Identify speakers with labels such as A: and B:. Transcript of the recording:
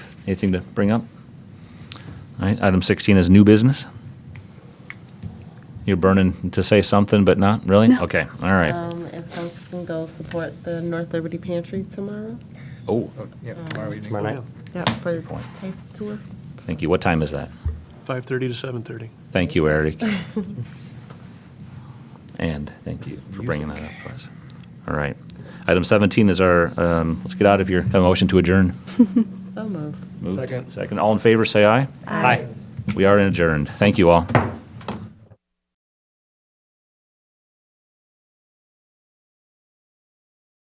A: Anything to bring up? All right, item 16 is new business. You're burning to say something, but not really?
B: No.
A: Okay, all right.
C: Um, if folks can go support the North Liberty Pantry tomorrow.
A: Oh,
D: Oh, Yeah, tomorrow evening.
E: Tomorrow night.
C: Yeah. For the
A: point.
C: taste tour.
A: thank you. What time is that?
F: 5:30 to 7:30.
A: Thank you, Eric. And thank you for bringing that up for us. All right. Item 17 is our, um, let's get out of here. Have a motion to adjourn.
C: So moved.
A: Moved.
D: Second.
A: Second. All in favor, say aye.
C: Aye.
A: We are adjourned. Thank you all.